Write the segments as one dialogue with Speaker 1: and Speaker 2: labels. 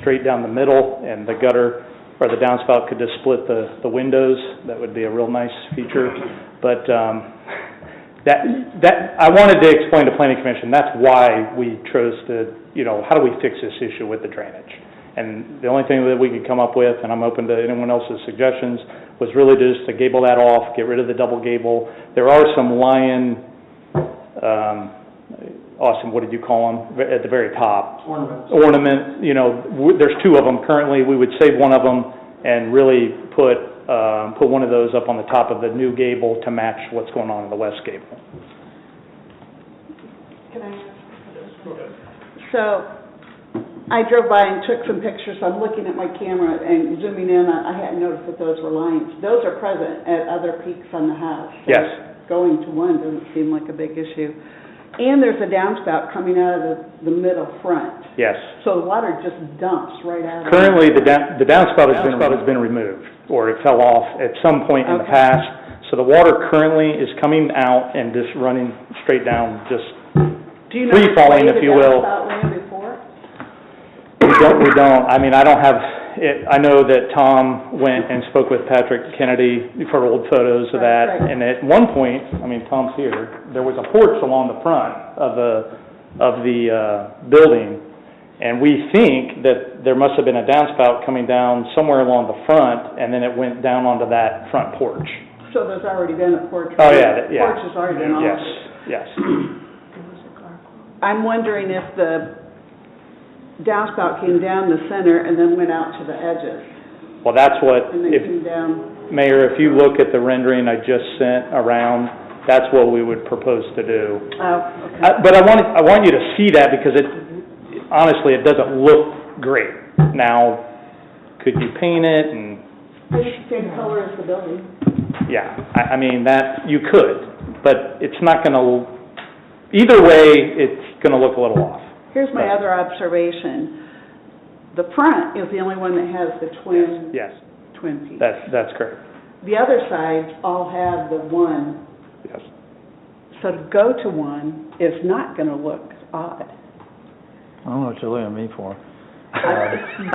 Speaker 1: straight down the middle, and the gutter or the downspout could just split the, the windows. That would be a real nice feature. But, um, that, that, I wanted to explain to planning commission, that's why we chose to, you know, how do we fix this issue with the drainage? And the only thing that we could come up with, and I'm open to anyone else's suggestions, was really just to gable that off, get rid of the double gable. There are some lion, um, Austin, what did you call them, at the very top?
Speaker 2: ornaments.
Speaker 1: ornament, you know, w- there's two of them currently, we would save one of them and really put, um, put one of those up on the top of the new gable to match what's going on in the west gable.
Speaker 3: Can I ask? So, I drove by and took some pictures, I'm looking at my camera and zooming in, I I hadn't noticed that those were lions. Those are present at other peaks on the house. So
Speaker 1: Yes.
Speaker 3: Going to one doesn't seem like a big issue. And there's a downspout coming out of the, the middle front,
Speaker 1: Yes.
Speaker 3: so the water just dumps right out of it.
Speaker 1: Currently, the down, the downspout has been, has been removed, or it fell off at some point in the
Speaker 3: Okay.
Speaker 1: past. So the water currently is coming out and just running straight down, just,
Speaker 3: Do you know which
Speaker 1: free-falling,
Speaker 3: way
Speaker 1: if
Speaker 3: the
Speaker 1: you will.
Speaker 3: downspout went before?
Speaker 1: we don't, we don't, I mean, I don't have, it, I know that Tom went and spoke with Patrick Kennedy for old photos of
Speaker 3: Right,
Speaker 1: that.
Speaker 3: right.
Speaker 1: And at one point, I mean, Tom's here, there was a porch along the front of the, of the, uh, building. And we think that there must have been a downspout coming down somewhere along the front, and then it went down onto that front porch.
Speaker 3: So there's already been a porch.
Speaker 1: Oh, yeah, that- yeah.
Speaker 3: Porch has already been altered.
Speaker 1: Yes, yes.
Speaker 3: I'm wondering if the downspout came down the center and then went out to the edges,
Speaker 1: Well, that's what,
Speaker 3: and then
Speaker 1: if,
Speaker 3: came down,
Speaker 1: Mayor, if you look at the rendering I just sent around, that's what we would propose to do.
Speaker 3: oh, okay.
Speaker 4: uh,
Speaker 1: I- Uh, But I want, I want you to see that because it, honestly, it doesn't look great. Now, could you paint it and,
Speaker 3: Same- Same color as the building.
Speaker 1: yeah, I, I mean, that, you could, but it's not gonna, either way, it's gonna look a little off.
Speaker 3: Here's my other observation. The front is the only one that has the twin,
Speaker 1: Yes,
Speaker 3: twin peaks.
Speaker 1: that's, that's correct,
Speaker 3: The other sides all have the one,
Speaker 1: yes.
Speaker 3: so to go to one is not gonna look odd.
Speaker 4: I don't know what you're looking at me for.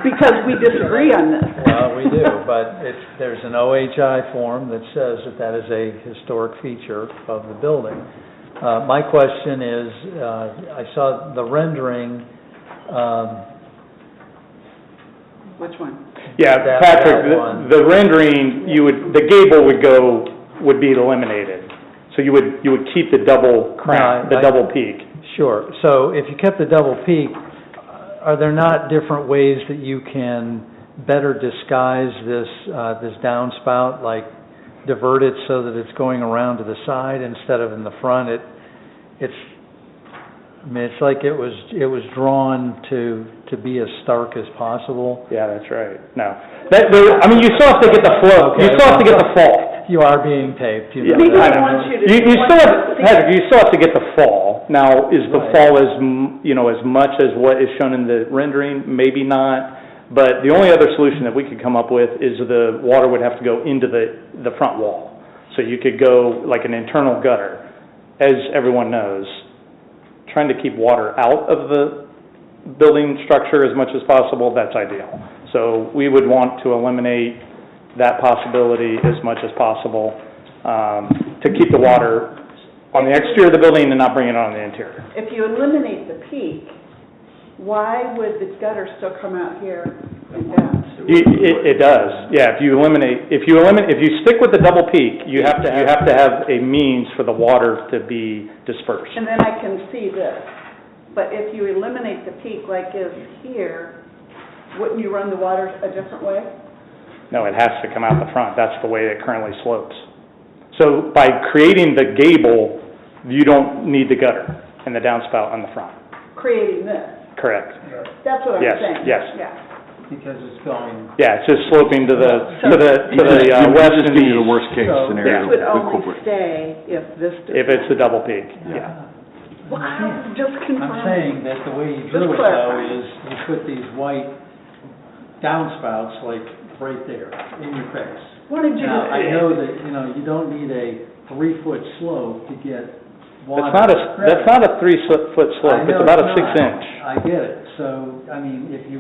Speaker 3: Because we disagree on this.
Speaker 4: Well, we do, but it's, there's an OHI form that says that that is a historic feature of the building. Uh, my question is, uh, I saw the rendering, um,
Speaker 3: Which one?
Speaker 1: Yeah,
Speaker 4: That-
Speaker 1: Patrick,
Speaker 4: that one.
Speaker 1: the- the rendering, you would, the gable would go, would be eliminated. So you would, you would keep the double crown,
Speaker 4: No,
Speaker 1: the
Speaker 4: I-
Speaker 1: double peak.
Speaker 4: Sure. So if you kept the double peak, are there not different ways that you can better disguise this, uh, this downspout? Like divert it so that it's going around to the side instead of in the front? It, it's, I mean, it's like it was, it was drawn to, to be as stark as possible.
Speaker 1: Yeah, that's right, no. That, there, I mean, you still have to get the flow, you
Speaker 4: Okay,
Speaker 1: still have to get
Speaker 4: well-
Speaker 1: the fall.
Speaker 4: You are being taped, you
Speaker 1: Yeah,
Speaker 4: know
Speaker 1: I
Speaker 4: that.
Speaker 1: don't
Speaker 3: want
Speaker 1: know.
Speaker 3: you to-
Speaker 1: You, you
Speaker 3: want
Speaker 1: still have,
Speaker 3: you to see-
Speaker 1: Patrick, you still have to get the fall. Now, is the
Speaker 4: Right.
Speaker 1: fall as, m- you know, as much as what is shown in the rendering? Maybe not, but the only other solution that we could come up with is the water would have to go into the, the front wall. So you could go like an internal gutter. As everyone knows, trying to keep water out of the building structure as much as possible, that's ideal. So we would want to eliminate that possibility as much as possible, um, to keep the water on the exterior of the building and not bring it on the interior.
Speaker 3: If you eliminate the peak, why would the gutter still come out here and down?
Speaker 1: You- It, it does, yeah, if you eliminate, if you eliminate, if you stick with the double peak, you have to, you have to have a means for the water to be dispersed.
Speaker 3: And then I can see this. But if you eliminate the peak like is here, wouldn't you run the water a different way?
Speaker 1: No, it has to come out the front, that's the way it currently slopes. So by creating the gable, you don't need the gutter and the downspout on the front,
Speaker 3: Creating this.
Speaker 1: correct?
Speaker 3: That's what I'm
Speaker 1: Yes,
Speaker 3: saying.
Speaker 1: yes.
Speaker 3: Yeah.
Speaker 4: Because it's going
Speaker 1: Yeah, it's just sloping to the, to the, to the uh,
Speaker 5: You
Speaker 1: west
Speaker 5: just
Speaker 1: and
Speaker 5: give you the
Speaker 1: east,
Speaker 5: worst case
Speaker 4: So-
Speaker 3: This
Speaker 5: scenario.
Speaker 3: would
Speaker 5: with
Speaker 3: only
Speaker 5: corporate.
Speaker 3: stay if this.
Speaker 1: if it's the double peak, yeah.
Speaker 3: Well, I'm just confirming.
Speaker 4: I'm saying that the way you
Speaker 3: Just
Speaker 4: do it though
Speaker 3: clarify.
Speaker 4: is you put these white downspouts like right there in your face.
Speaker 3: What did you
Speaker 4: Now, I
Speaker 3: do?
Speaker 4: know that, you know, you don't need a three-foot slope to get water.
Speaker 1: That's not a, that's not a three sli- foot
Speaker 4: I
Speaker 1: slope,
Speaker 4: know
Speaker 1: it's about a
Speaker 4: not.
Speaker 1: six inch.
Speaker 4: I get it. So, I mean, if you